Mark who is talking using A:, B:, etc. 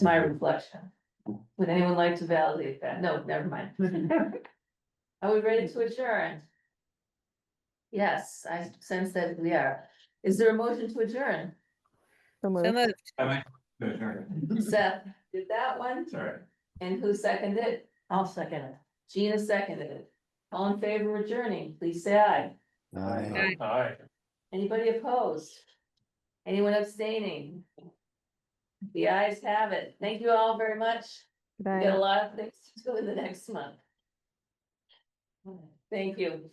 A: my reflection. Would anyone like to validate that? No, never mind. Are we ready to adjourn? Yes, I sense that we are. Is there a motion to adjourn?
B: So moved.
C: I might. no, sorry.
A: Seth did that one,
C: Sorry.
A: and who seconded it? I'll second it. Gina seconded it. All in favor of adjourning, please say aye.
D: Aye.
C: Aye.
A: Anybody opposed? Anyone abstaining? The ayes have it. Thank you all very much. We
B: Good night.
A: got a lot of things to do in the next month. Thank you.